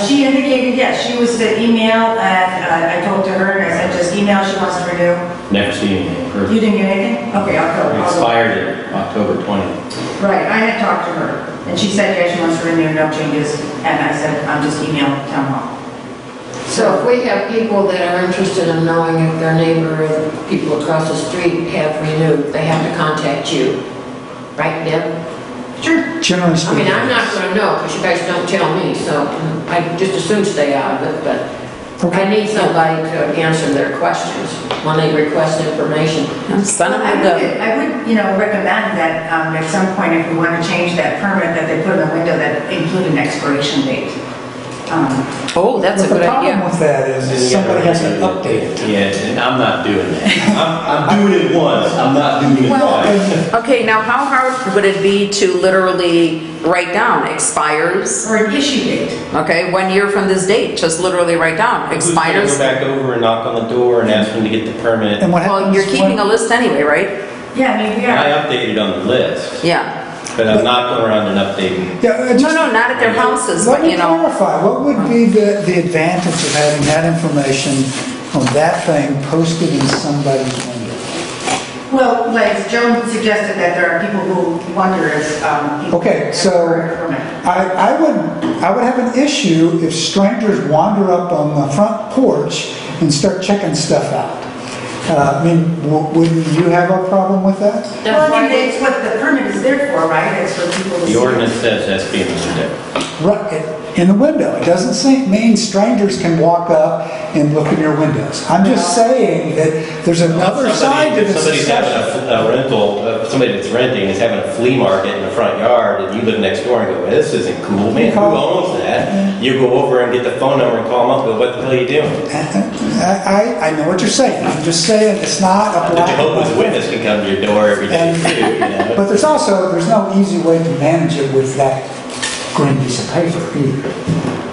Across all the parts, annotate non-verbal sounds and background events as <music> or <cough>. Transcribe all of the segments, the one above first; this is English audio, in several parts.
She indicated, yes, she was to email, and uh, I talked to her, and I said, just email, she wants to renew. Never seen anything. Her- You didn't get anything? Okay, I'll go. I'll go. Expired at October 20th. Right, I had talked to her, and she said, yes, she wants to renew, no changes, and I said, I'm just email town hall. So if we have people that are interested in knowing if their neighbor or the people across the street have renewed, they have to contact you, right, Deb? Sure. I Generally speaking. mean, I'm not gonna know, because you guys don't tell me, so I just assume stay out of it, but I need somebody to answer their questions when they request information. Son I of a would, gun. I would, you know, recommend that um, at some point, if we want to change that permit, that they put in the window that include an expiration date. Um, Oh, that's a But good the problem idea. with that is, is somebody has to update it. Yeah, and I'm not doing that. <laughs> I'm, I'm doing it once, I'm not doing it twice. Okay, now how hard would it be to literally write down expires? Or an issue date. Okay, one year from this date, just literally write down Who's gonna Go expires. back over and knock on the door and ask them to get the permit. And what Well, happens you're keeping when, a list anyway, right? Yeah, I mean, we I are. updated on the list, Yeah. but I'm not going around and updating. yeah, uh, No, just, no, not at their houses, let but me you know. clarify, what would be the, the advantage of having that information on that thing posted in somebody's window? Well, like Joan suggested, that there are people who wonder if. um, people- Okay, so I, I would, I would have an issue if strangers wander up on the front porch and start checking stuff out. Uh, I mean, w- would you have a problem with that? Well, I mean, it's what the permit is there for, right? It's for people to see. The ordinance says that's being looked Right, in the window. It doesn't say, mean strangers can walk up and look in your windows. I'm just saying that there's another side to Somebody, if this somebody's having discussion. a a rental, uh, somebody that's renting is having a flea market in the front yard, and you live next door and go, "Well, this isn't cool, man, who Call- owns that? You go over and get the phone number and call them up, go, what the hell are you doing? I, I, I know what you're saying. I'm just saying it's not a The black. and Jehovah's white. Witness can come to your door every day, And- too, <laughs> you know? But there's also, there's no easy way to manage it with that green piece of paper either.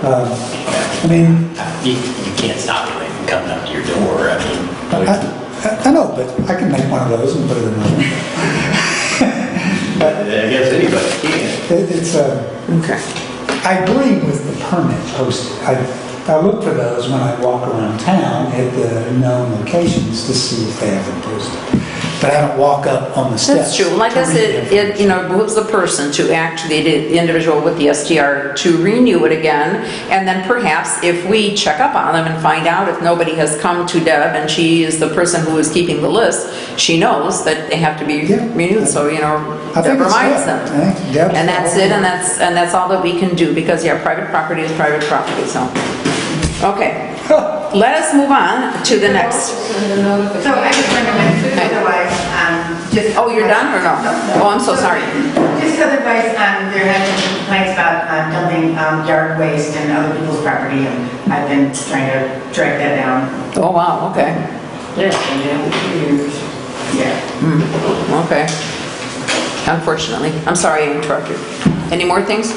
Um, I mean, You, you can't stop the from coming up to your door, I I, mean. I- I know, but I can make one of those and put it in my window. I guess anybody can. It- It's um, a. Okay. I agree with the permit posted. I, I look for those when I walk around town at the known locations to see if they have them posted. But I don't walk up on the steps. That's true. Like to I said, read it, you know, moves the person to actually, the individual with the STR to renew it again. And then perhaps if we check up on them and find out if nobody has come to Deb and she is the person who is keeping the list, she knows that they have to be Yeah. renewed, so, you know, I Deb think it's reminds good. them. I think Deb's And that's it, all- and that's, and that's all that we can do, because, yeah, private property is private property, so. <laughs> Okay. Let us move on to the next. Send a notification. So I just recommend, otherwise, um, just. Oh, you're done or no? Oh, I'm so sorry. Just otherwise, um, there have been complaints about um, dumping um, yard waste in other people's property, and I've been trying to drag that down. Oh, wow, okay, Yeah, yeah, years. Yeah. okay. Unfortunately, I'm sorry I interrupted. Any more things?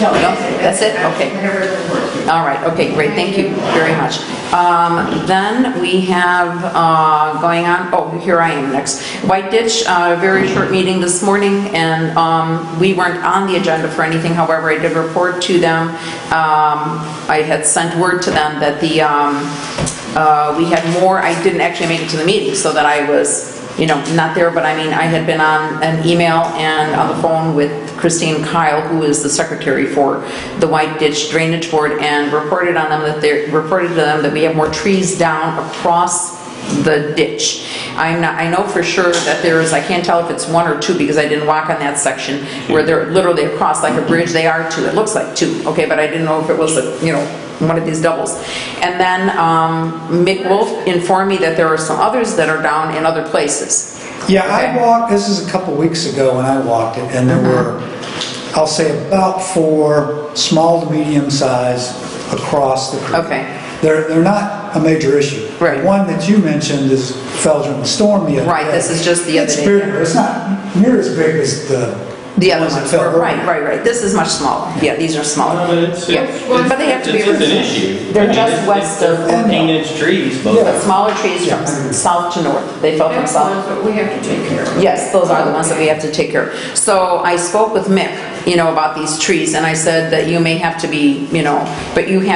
No, That's it, Um, okay. Whatever it works. All right, okay, great, thank you very much. Um, Then we have uh, going on, oh, here I am next. White Ditch, uh, very short meeting this morning, and um, we weren't on the agenda for anything, however, I did report to them. Um, I had sent word to them that the, um, uh, we had more, I didn't actually make it to the meeting, so that I was, you know, not there, but I mean, I had been on an email and on the phone with Christine Kyle, who is the secretary for the White Ditch Drainage Board, and reported on them that they, reported to them that we have more trees down across the ditch. I'm not, I know for sure that there is, I can't tell if it's one or two, because I didn't walk on that section, where they're literally across like a bridge, they are two, it looks like two, okay, but I didn't know if it was, a you know, one of these doubles. And then um, Mick Wolf informed me that there are some others that are down in other places. Yeah, I Okay. walked, this is a couple weeks ago when I walked it, and there Uh-huh. were, I'll say about four small to medium size across the creek. Okay. They're, they're not a major issue. Right. One that you mentioned is fell during the storm the other day. Right, this is just the other It's day. bigger, it's not near as big as the. The other ones that ones, fell were- right, earlier. right, right, this is much smaller, yeah, these are No, smaller. but it's, Yeah, it's, But they have to be. it's an removed. issue. I They're mean, just it's- west it's of, Fourteen inch trees, both of the them. smaller trees from south to north, they fell from That's south. what we have to take care of. Yes, those are the ones that we have to take care of. So I spoke with Mick you know, about these trees, and I said that you may have to be, you know, but you have